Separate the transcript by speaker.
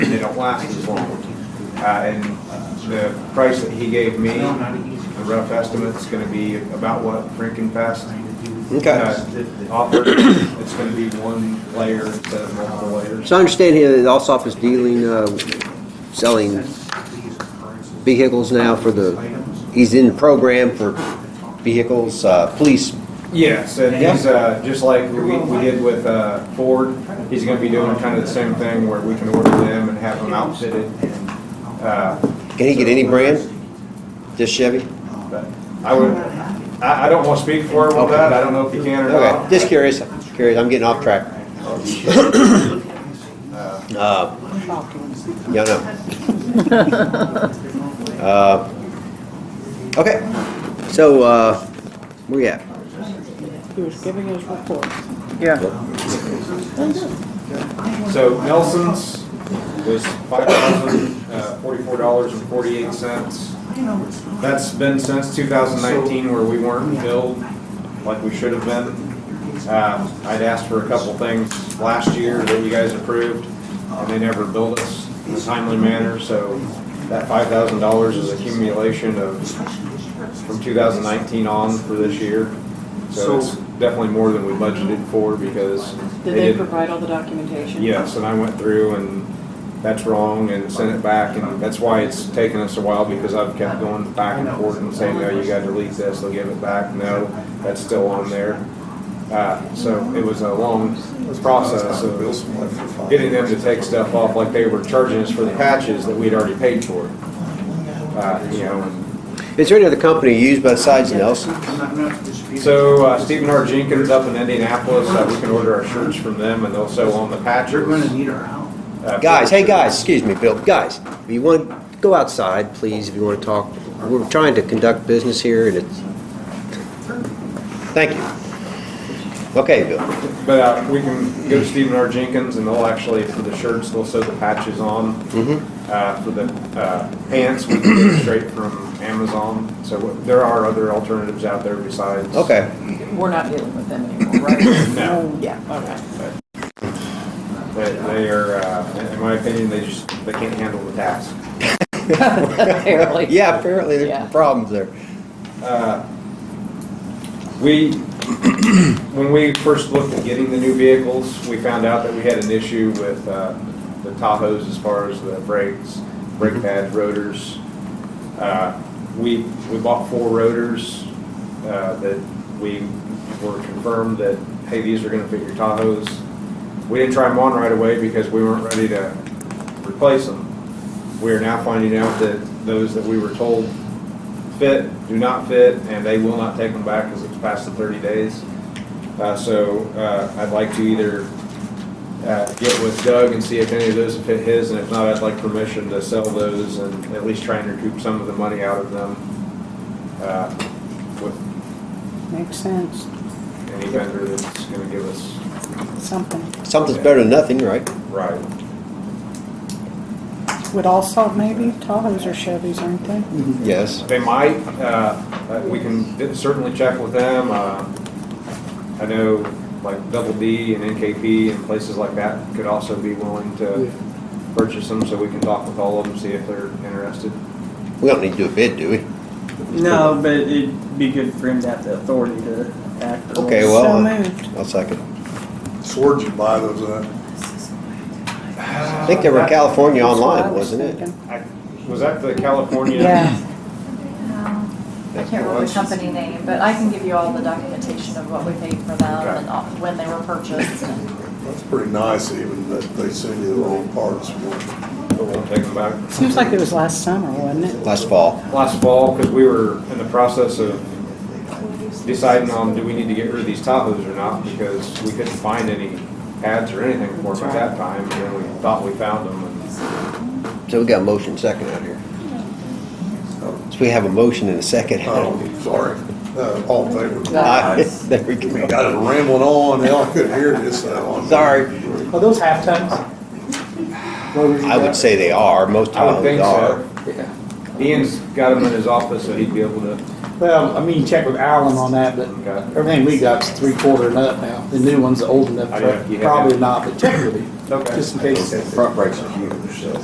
Speaker 1: different licenses on it. Uh, and the price that he gave me, the rough estimate's gonna be about what Frankenfest
Speaker 2: Okay.
Speaker 1: uh, offered. It's gonna be one layer instead of multiple layers.
Speaker 2: So I understand here that Alsop is dealing, uh, selling vehicles now for the, he's in the program for vehicles, uh, police.
Speaker 1: Yes, and he's, uh, just like we, we did with, uh, Ford, he's gonna be doing kind of the same thing where we can order them and have them outfitted and, uh,
Speaker 2: Can he get any brand? Just Chevy?
Speaker 1: but I would, I, I don't wanna speak for him on that. I don't know if he can or
Speaker 2: Okay,
Speaker 1: not.
Speaker 2: just curious, curious, I'm getting off track. Uh, Yeah, no. Uh, Okay, so, uh, where you at?
Speaker 3: He was giving his report.
Speaker 4: Yeah,
Speaker 1: So Nelson's was five thousand, uh, forty-four dollars and forty-eight cents. That's been since two thousand nineteen where we weren't billed like we should have been. Um, I'd asked for a couple things last year that you guys approved, and they never billed us in a timely manner, so that five thousand dollars is accumulation of, from two thousand nineteen on for this year. So it's definitely more than we budgeted for because they
Speaker 3: Did they
Speaker 1: didn't
Speaker 3: provide all the documentation?
Speaker 1: Yes, and I went through and that's wrong and sent it back and that's why it's taken us a while because I've kept going back and forth and saying, no, you gotta delete this, they'll give it back, no, that's still on there. Uh, so it was a long process of getting them to take stuff off like they were charging us for the patches that we'd already paid for. Uh, you know, and
Speaker 2: Is there any other company used besides Nelson?
Speaker 1: So uh, Stephen R. Jenkins up in Indianapolis, uh, we can order our shirts from them and they'll sew on the patches.
Speaker 5: need our help.
Speaker 1: uh,
Speaker 2: Guys, hey guys, excuse me, Bill, guys, if you want, to go outside, please, if you want to talk. We're trying to conduct business here and it's, thank you. Okay, Bill,
Speaker 1: But uh, we can go to Stephen R. Jenkins, and they'll actually, for the shirts, they'll sew the patches on. Uh, For the uh, pants, we can get straight from Amazon. So there are other alternatives out there besides.
Speaker 2: okay,
Speaker 3: We're not dealing with them anymore, right?
Speaker 1: No.
Speaker 3: Yeah, okay.
Speaker 1: But they are, uh, in in my opinion, they just, they can't handle the task.
Speaker 3: Apparently.
Speaker 2: yeah, apparently there's
Speaker 3: Yeah.
Speaker 2: some problems there.
Speaker 1: We, when we first looked at getting the new vehicles, we found out that we had an issue with uh, the Tahoes as far as the brakes, brake pads, rotors. Uh, We, we bought four rotors uh, that we were confirmed that, hey, these are gonna fit your Tahoes. We didn't try them on right away because we weren't ready to replace them. We are now finding out that those that we were told fit, do not fit, and they will not take them back because it's past the 30 days. Uh, So uh, I'd like to either uh, get with Doug and see if any of those fit his, and if not, I'd like permission to sell those and at least try and recoup some of the money out of them uh, with
Speaker 4: makes sense,
Speaker 1: any vendor that's going to give us
Speaker 4: something.
Speaker 2: Something's better than nothing, right?
Speaker 1: right.
Speaker 4: Would also maybe, Tahoes or Chevys, aren't they?
Speaker 2: Yes.
Speaker 1: They might, uh, uh, we can certainly check with them. Uh, I know like Double D and NKP and places like that could also be willing to purchase them, so we can talk with all of them, see if they're interested.
Speaker 2: We don't need to do a bid, do we?
Speaker 6: No, but it'd be good for him to have the authority to act. on
Speaker 2: Okay,
Speaker 6: it.
Speaker 2: well,
Speaker 4: So
Speaker 2: uh,
Speaker 4: moved.
Speaker 2: I'll second.
Speaker 7: So where'd you buy those at?
Speaker 2: I think they were California online, wasn't it?
Speaker 1: Uh, I- Was that the California?
Speaker 4: Yeah,
Speaker 8: I can't remember the company name, but I can give you all the documentation of what we paid for them and all- when they were purchased. and-
Speaker 7: That's pretty nice even that they send you the wrong parts. for it.
Speaker 1: But we'll take them back.
Speaker 4: seems like it was last summer, wasn't it?
Speaker 2: Last fall.
Speaker 1: last fall because we were in the process of deciding on do we need to get rid of these Tahoes or not because we couldn't find any pads or anything for them at that time. And then we thought we found them. And
Speaker 2: So we got a motion second out here. So we have a motion and a second.
Speaker 7: Oh, sorry. Uh, All in favor.
Speaker 2: Aye. There we
Speaker 7: We
Speaker 2: go.
Speaker 7: got it rambling on, hell, I couldn't hear this now.
Speaker 2: Sorry.
Speaker 5: Are those half tons?
Speaker 2: I would say they are, most
Speaker 1: I would
Speaker 2: Tahoes
Speaker 1: think
Speaker 2: are.
Speaker 1: so. Ian's got them in his office, so he'd be able to.
Speaker 5: Well, I mean, check with Alan on that, but
Speaker 1: Okay.
Speaker 5: everything we got's three quarter and up now. The new one's old enough,
Speaker 1: Oh, yeah, you have
Speaker 5: probably
Speaker 1: that.
Speaker 5: not, but check with him,
Speaker 1: Okay.
Speaker 5: just in case.
Speaker 2: Front brakes are huge, so.